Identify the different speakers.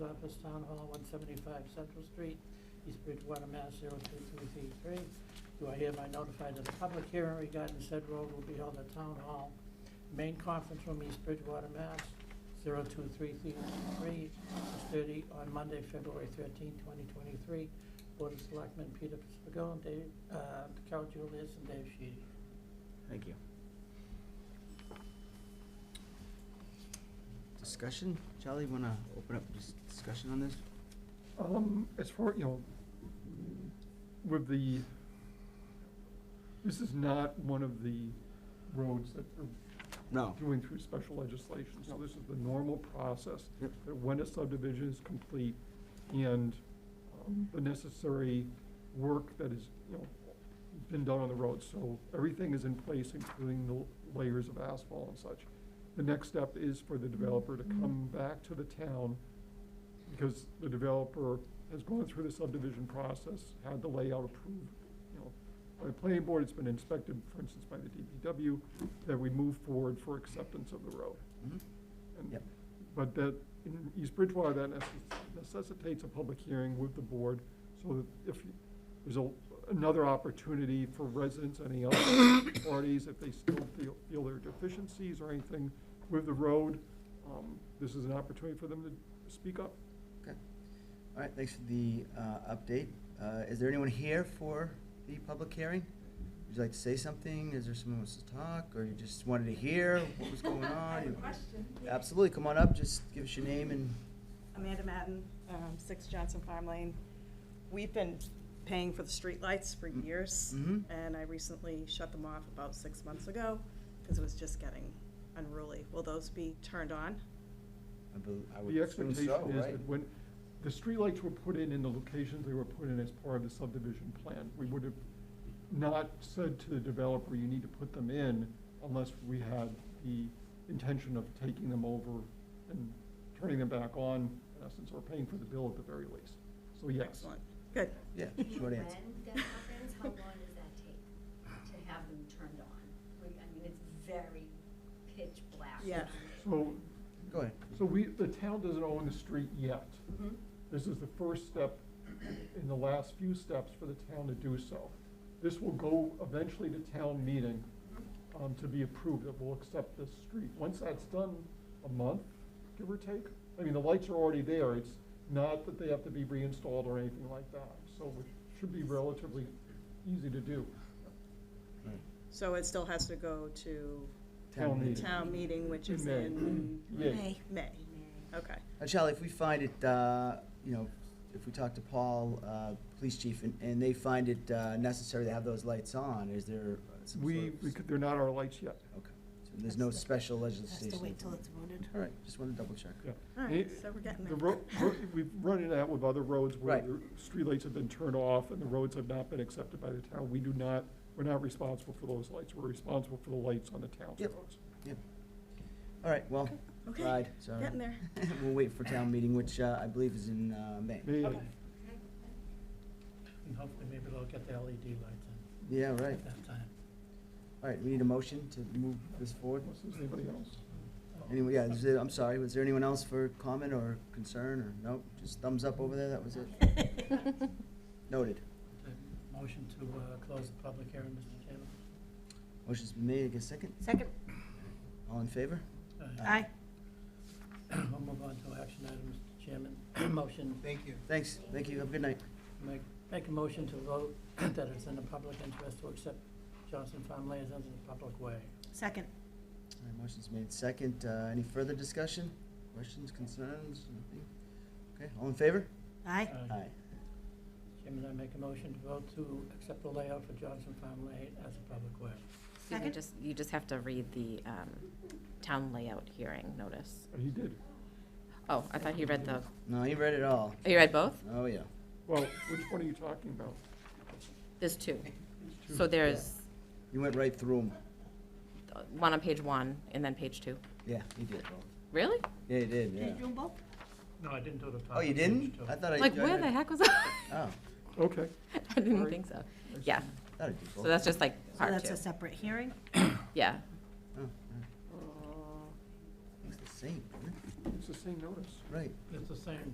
Speaker 1: Office, Town Hall, one seventy-five Central Street, East Bridgewater, Mass. zero two three three three. Do I hereby notify that the public hearing regarding said road will be held at Town Hall, Main Conference Room, East Bridgewater, Mass. zero two three three three, thirty, on Monday, February thirteenth, twenty twenty-three. Board of Selectmen Peter Spigot, Dave, uh, Carol Julius, and Dave Sheedy.
Speaker 2: Thank you. Discussion? Charlie, want to open up dis- discussion on this?
Speaker 3: Um, as far, you know, with the, this is not one of the roads that are
Speaker 2: No.
Speaker 3: doing through special legislation, so this is the normal process.
Speaker 2: Yep.
Speaker 3: That when a subdivision is complete and um, the necessary work that is, you know, been done on the road, so everything is in place, including the layers of asphalt and such. The next step is for the developer to come back to the town because the developer has gone through the subdivision process, had the layout approved, you know, by the planning board, it's been inspected, for instance, by the DPW, that we move forward for acceptance of the road.
Speaker 2: Mhm.
Speaker 3: And-
Speaker 2: Yep.
Speaker 3: But that, in East Bridgewater, that necess- necessitates a public hearing with the board, so that if you- there's a, another opportunity for residents, any other parties, if they still feel, feel there are deficiencies or anything with the road, um, this is an opportunity for them to speak up.
Speaker 2: All right, thanks for the uh, update. Uh, Is there anyone here for the public hearing? Would you like to say something? Is there someone who wants to talk, or you just wanted to hear what was going
Speaker 4: I have a
Speaker 2: on?
Speaker 4: question.
Speaker 2: Absolutely, come on up, just give us your name and,
Speaker 4: Amanda Madden, um, Six Johnson Farm Lane. We've been paying for the streetlights for
Speaker 2: Mm.
Speaker 4: years,
Speaker 2: Mhm.
Speaker 4: and I recently shut them off about six months ago because it was just getting unruly. Will those be turned on?
Speaker 2: I bel- I would
Speaker 3: The
Speaker 2: assume
Speaker 3: expectation
Speaker 2: so,
Speaker 3: is
Speaker 2: right?
Speaker 3: that when, the streetlights were put in in the locations they were put in as part of the subdivision plan. We would have not said to the developer, you need to put them in unless we had the intention of taking them over and turning them back on, in essence, or paying for the bill at the very least. So yes.
Speaker 4: Excellent. Good.
Speaker 2: Yeah,
Speaker 5: Do you know
Speaker 2: short answer.
Speaker 5: When that happens, how long does that take to have them turned on? We- I mean, it's very pitch black.
Speaker 4: Yeah.
Speaker 3: So,
Speaker 2: Go ahead.
Speaker 3: so we, the town doesn't own the street yet.
Speaker 4: Mm-hmm.
Speaker 5: Mhm.
Speaker 3: This is the first step in the last few steps for the town to do so. This will go eventually to town meeting
Speaker 4: Mm-hmm.
Speaker 3: um, to be approved, that will accept this street. Once that's done, a month, give or take, I mean, the lights are already there, it's not that they have to be reinstalled or anything like that. So it should be relatively easy to do.
Speaker 2: All right.
Speaker 4: So it still has to go to
Speaker 3: Town
Speaker 2: meeting.
Speaker 3: meeting.
Speaker 4: town meeting, which is
Speaker 3: May.
Speaker 4: in
Speaker 3: Yeah.
Speaker 4: May. Okay.
Speaker 2: Uh, Charlie, if we find it, uh, you know, if we talk to Paul, uh, police chief, and, and they find it uh, necessary to have those lights on, is there uh, some sort
Speaker 3: We,
Speaker 2: of-
Speaker 3: we could- they're not our lights yet.
Speaker 2: Okay, so there's no special legislation?
Speaker 6: Has to wait till it's voted.
Speaker 2: All right, just wanted to double check.
Speaker 3: Yeah.
Speaker 4: All right,
Speaker 3: It-
Speaker 4: so we're getting
Speaker 3: The
Speaker 4: there.
Speaker 3: ro- ro- we've run into that with other roads where
Speaker 2: Right.
Speaker 3: the streetlights have been turned off and the roads have not been accepted by the town. We do not, we're not responsible for those lights. We're responsible for the lights on the town's
Speaker 2: Yep.
Speaker 3: roads.
Speaker 2: All right, well,
Speaker 4: Okay.
Speaker 2: tried, sorry.
Speaker 4: Getting there.
Speaker 2: We'll wait for town meeting, which uh, I believe is in uh, May.
Speaker 3: May-
Speaker 4: Okay.
Speaker 1: And hopefully maybe they'll get the LED lights in
Speaker 2: Yeah, right.
Speaker 1: at that time.
Speaker 2: All right, we need a motion to move this forward.
Speaker 3: Unless there's anybody else.
Speaker 2: Anyway, yeah, is there- I'm sorry, was there anyone else for comment or concern, or, nope, just thumbs up over there, that was it? Noted.
Speaker 1: The Motion to uh, close the public hearing, Mr. Chairman.
Speaker 2: Motion's been made, I guess second?
Speaker 6: Second.
Speaker 2: All in favor?
Speaker 1: Uh,
Speaker 6: Aye.
Speaker 1: We'll move on to action items, Mr. Chairman. Motion,
Speaker 2: Thank you. Thanks, thank you, have a good night.
Speaker 1: make, make a motion to vote that it's in the public interest to accept Johnson Farm Lands as a public way.
Speaker 6: Second.
Speaker 2: All right, motion's made second, Uh, any further discussion? Questions, concerns, nothing? Okay, all in favor?
Speaker 6: Aye.
Speaker 1: Uh, Chairman, I make a motion to vote to accept the layout for Johnson Farm Lane as a public way.
Speaker 7: You
Speaker 6: Second.
Speaker 7: just, you just have to read the um, town layout hearing notice.
Speaker 3: He did.
Speaker 7: Oh, I thought you read the,
Speaker 2: No, he read it all.
Speaker 7: oh, you read both?
Speaker 2: Oh, yeah.
Speaker 3: Well, which one are you talking about?
Speaker 7: There's two.
Speaker 3: Two.
Speaker 7: So there's
Speaker 2: You went right through them.
Speaker 7: uh, one on page one and then page two.
Speaker 2: Yeah, he did.
Speaker 7: Really?
Speaker 2: Yeah, he
Speaker 6: Did
Speaker 2: did,
Speaker 6: you do
Speaker 2: yeah.
Speaker 6: 'em both?
Speaker 1: No, I didn't do the top.
Speaker 2: Oh, you
Speaker 1: of page
Speaker 2: didn't?
Speaker 1: two.
Speaker 2: I thought I.
Speaker 7: Like,
Speaker 2: I-
Speaker 7: where the heck was I?
Speaker 2: Oh,
Speaker 3: Okay.
Speaker 7: I didn't
Speaker 3: Sorry.
Speaker 7: think so. Yeah,
Speaker 2: I thought I did
Speaker 7: so
Speaker 2: both.
Speaker 7: that's just like
Speaker 6: So
Speaker 7: part
Speaker 6: that's
Speaker 7: two.
Speaker 6: a separate hearing?
Speaker 7: Yeah.
Speaker 2: Oh, all right. It's the same, isn't it?
Speaker 3: It's the same notice.
Speaker 2: right?
Speaker 1: It's the same